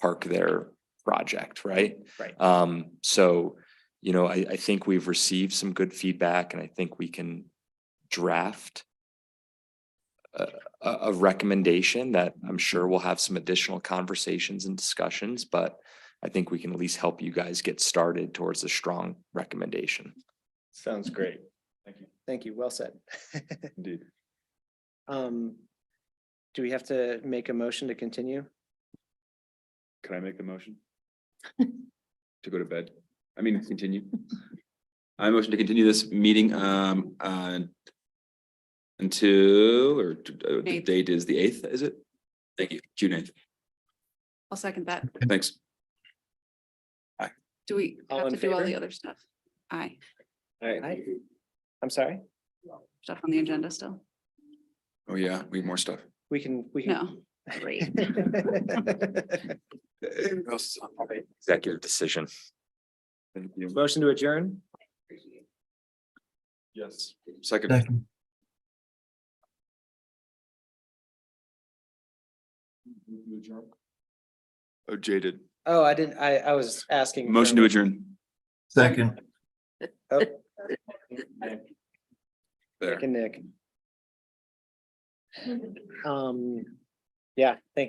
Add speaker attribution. Speaker 1: park their project, right?
Speaker 2: Right.
Speaker 1: Um, so, you know, I, I think we've received some good feedback and I think we can draft a, a, a recommendation that I'm sure will have some additional conversations and discussions, but I think we can at least help you guys get started towards a strong recommendation.
Speaker 3: Sounds great.
Speaker 2: Thank you. Well said.
Speaker 3: Indeed.
Speaker 2: Um, do we have to make a motion to continue?
Speaker 3: Can I make the motion? To go to bed? I mean, continue. I motion to continue this meeting um on until, or t- uh, the
Speaker 4: Eighth.
Speaker 3: date is the eighth, is it? Thank you, June eighth.
Speaker 4: I'll second that.
Speaker 3: Thanks.
Speaker 4: Do we
Speaker 2: All
Speaker 4: have
Speaker 2: in
Speaker 4: to do all the
Speaker 2: favor?
Speaker 4: other stuff? Aye,
Speaker 2: Aye. I'm sorry,
Speaker 4: stuff on the agenda still.
Speaker 3: Oh, yeah, we have more stuff.
Speaker 2: we can, we can.
Speaker 4: No. Great.
Speaker 1: Executive decision.
Speaker 3: Thank you.
Speaker 2: Motion to adjourn?
Speaker 3: Yes. Second. Oh, jaded.
Speaker 2: Oh, I didn't, I, I was asking. Oh.
Speaker 3: Motion to adjourn.
Speaker 5: Second.
Speaker 2: adjourn.
Speaker 3: There.
Speaker 2: Nick. Um, yeah, thank you.